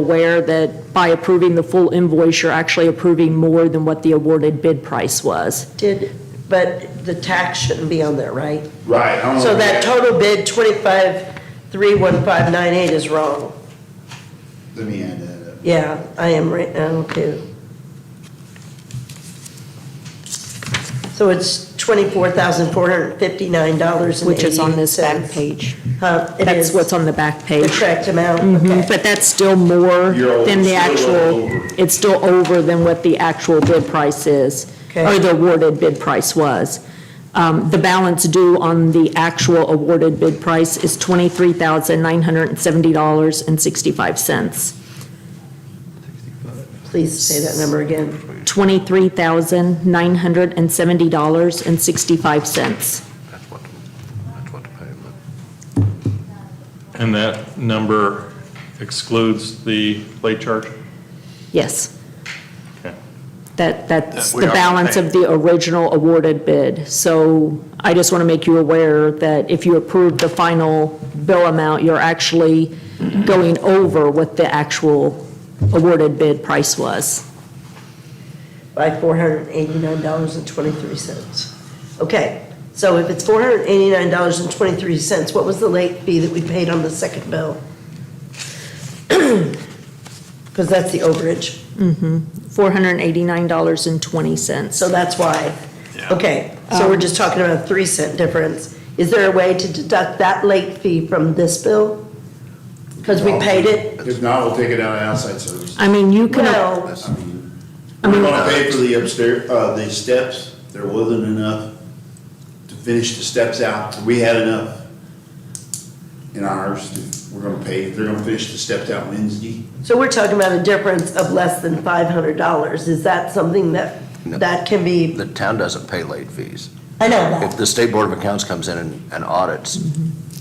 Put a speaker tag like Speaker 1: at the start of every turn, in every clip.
Speaker 1: aware that by approving the full invoice, you're actually approving more than what the awarded bid price was.
Speaker 2: Did, but the tax shouldn't be on there, right?
Speaker 3: Right. I don't
Speaker 2: So
Speaker 3: know.
Speaker 2: that total bid, twenty-five, three, one, five, nine, eight is wrong.
Speaker 3: Let me add that up.
Speaker 2: Yeah, I am right now too. So it's twenty-four thousand, four hundred and fifty-nine dollars
Speaker 1: Which is on this back page.
Speaker 2: Huh, it
Speaker 1: That's
Speaker 2: is
Speaker 1: what's on the back
Speaker 2: the
Speaker 1: page.
Speaker 2: correct amount,
Speaker 1: Mhm,
Speaker 2: okay.
Speaker 1: But that's still more
Speaker 3: You're
Speaker 1: than the
Speaker 3: over- still
Speaker 1: actual,
Speaker 3: over.
Speaker 1: it's still over than what the actual bid price is, or
Speaker 2: Okay.
Speaker 1: Oh, the awarded bid price was. Um, The balance due on the actual awarded bid price is $23,970.65.
Speaker 2: Please say that number again.
Speaker 1: $23,970.65.
Speaker 4: That's what, that's what the payment.
Speaker 5: And that number excludes the late charge?
Speaker 1: Yes.
Speaker 5: Okay.
Speaker 1: That, that's
Speaker 4: That we
Speaker 1: the
Speaker 4: are
Speaker 1: balance of the original awarded bid. So I just want to make you aware that if you approve the final bill amount, you're actually going over what the actual awarded bid price was.
Speaker 2: by four hundred and eighty-nine dollars and twenty-three cents. Okay, so if it's four hundred and eighty-nine dollars and twenty-three cents, what was the late fee that we paid on the second bill? Because that's the overage,
Speaker 1: $489.20.
Speaker 2: so
Speaker 1: So
Speaker 2: that's why.
Speaker 4: Yeah.
Speaker 2: Okay, so we're just talking about a three cent difference. Is there a way to deduct that late fee from this bill? Because we paid it,
Speaker 3: If not, we'll take it out of outside services.
Speaker 1: I mean, you can,
Speaker 2: no,
Speaker 3: I mean, We're
Speaker 2: uh,
Speaker 3: gonna pay for the upstairs, uh, the steps. There wasn't enough to finish the steps out. We had enough in ours. to- We're gonna pay, they're gonna finish the steps out Wednesday.
Speaker 2: so we're talking about a difference of less than five hundred dollars. Is that something that,
Speaker 6: No.
Speaker 2: that can be,
Speaker 6: The town doesn't pay late fees.
Speaker 2: I know that.
Speaker 6: If the state board of accounts comes in and- and audits.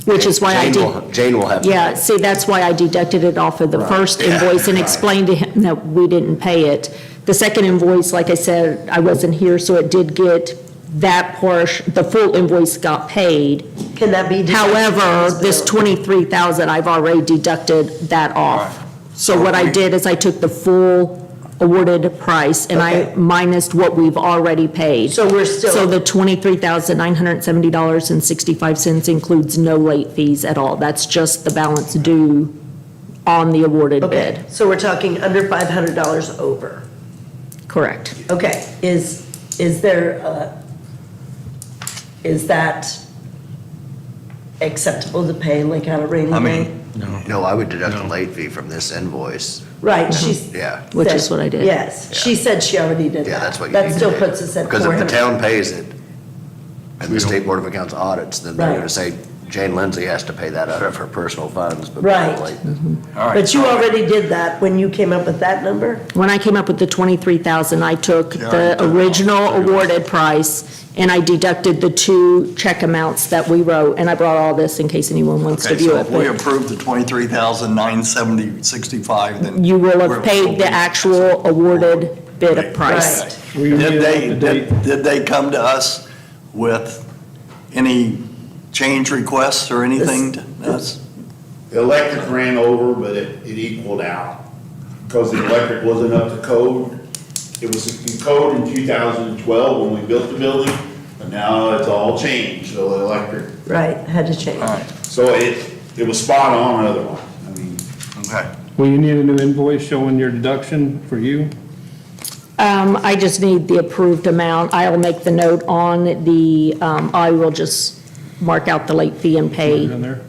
Speaker 1: which is why I
Speaker 6: Jane
Speaker 1: did.
Speaker 6: will- Jane will have. to
Speaker 1: Yeah,
Speaker 6: pay.
Speaker 1: see, that's why I deducted it off of the
Speaker 6: Right.
Speaker 1: first
Speaker 6: Yeah,
Speaker 1: invoice and
Speaker 6: right.
Speaker 1: explained to him that we didn't pay it. The second invoice, like I said, I wasn't here, so it did get that portion, the full invoice got paid.
Speaker 2: Can that be? deducted
Speaker 1: However,
Speaker 2: from
Speaker 1: this
Speaker 2: bill?
Speaker 1: twenty-three thousand, I've already deducted that off. So what I did is I took the full awarded price and I
Speaker 2: Okay.
Speaker 1: minused what we've already paid.
Speaker 2: So we're still-
Speaker 1: So the twenty-three thousand nine hundred and seventy dollars and sixty-five cents includes no late fees at all. That's just the balance due on the awarded
Speaker 2: Okay,
Speaker 1: bid.
Speaker 2: so we're talking under five hundred dollars over.
Speaker 1: Correct.
Speaker 2: Okay, is, is there, uh, is that acceptable to pay like on a rainy
Speaker 4: I
Speaker 2: day?
Speaker 4: mean, no.
Speaker 6: No, I would deduct the
Speaker 4: No.
Speaker 6: late fee from this invoice.
Speaker 2: Right, she's.
Speaker 6: Yeah.
Speaker 1: Which is
Speaker 2: said-
Speaker 1: what I did.
Speaker 2: Yes, she said she already did that.
Speaker 6: Yeah, that's what you need to
Speaker 2: That
Speaker 6: do.
Speaker 2: still puts us at four
Speaker 6: Because if
Speaker 2: hundred.
Speaker 6: the town pays it and
Speaker 4: We
Speaker 6: the
Speaker 4: don't-
Speaker 6: state board of accounts audits, then they're
Speaker 2: Right.
Speaker 6: going to say Jane Lindsay has to pay that out of her personal funds. but
Speaker 2: Right.
Speaker 6: late-
Speaker 4: All right.
Speaker 2: But you already did that when you came up with that number?
Speaker 1: When I came up with the twenty-three thousand, I took
Speaker 4: Yeah,
Speaker 1: the
Speaker 4: I did.
Speaker 1: original awarded price and I deducted the two check amounts that we wrote, and I brought all this in case anyone wants to
Speaker 7: Okay,
Speaker 1: view
Speaker 7: so
Speaker 1: it.
Speaker 7: if we
Speaker 1: but
Speaker 7: approve the twenty-three thousand nine seventy sixty-five, then.
Speaker 1: You will
Speaker 7: we're-
Speaker 1: have paid the actual awarded bid of
Speaker 7: Right.
Speaker 1: price.
Speaker 2: Right.
Speaker 7: Did they, did did they come to us with any change requests or anything to us?
Speaker 3: The electric ran over, but it, it equaled out. Because the electric wasn't up to code. It was in code in two thousand and twelve when we built the building, but now it's all changed, so the electric.
Speaker 2: Right, had to change.
Speaker 7: All right,
Speaker 3: So it, it was spot on otherwise. I mean,
Speaker 7: okay.
Speaker 8: Will you need a new invoice showing your deduction for you?
Speaker 1: Um, I just need the approved amount. I'll make the note on the, um, I will just mark out the late fee and
Speaker 8: In
Speaker 1: pay,
Speaker 8: there?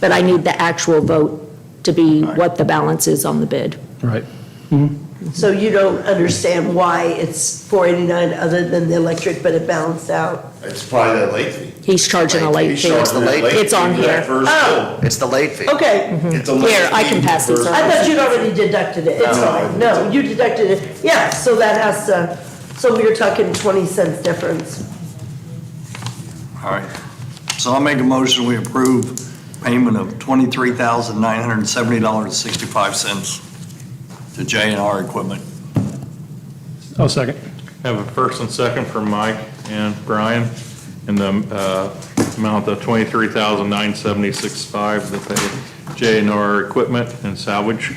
Speaker 1: but I need the actual vote to be what the balance is on the bid.
Speaker 8: Right.
Speaker 2: So you don't understand why it's four eighty-nine other than the electric, but it balanced out?
Speaker 3: it's probably that late fee.
Speaker 1: He's charging a late
Speaker 6: He's
Speaker 1: fee.
Speaker 6: charging the late-
Speaker 1: It's on
Speaker 3: Charging that
Speaker 1: here. Oh.
Speaker 3: first bill.
Speaker 6: It's the late fee.
Speaker 2: Okay,
Speaker 3: It's a late
Speaker 1: Here, I
Speaker 3: fee
Speaker 1: can pass these
Speaker 3: first-
Speaker 1: around.
Speaker 2: I thought you'd already deducted it, it's
Speaker 3: No.
Speaker 2: fine, no, you deducted it, yeah, so that has to, so we are talking twenty cents difference.
Speaker 7: All right. So I'll make a motion, we approve payment of twenty-three thousand nine hundred and seventy dollars and sixty-five cents to J and R Equipment.
Speaker 8: I'll second.
Speaker 5: Have a first and second for Mike and Brian in the uh, amount of 23,976.5 that they J and R Equipment and Salvage.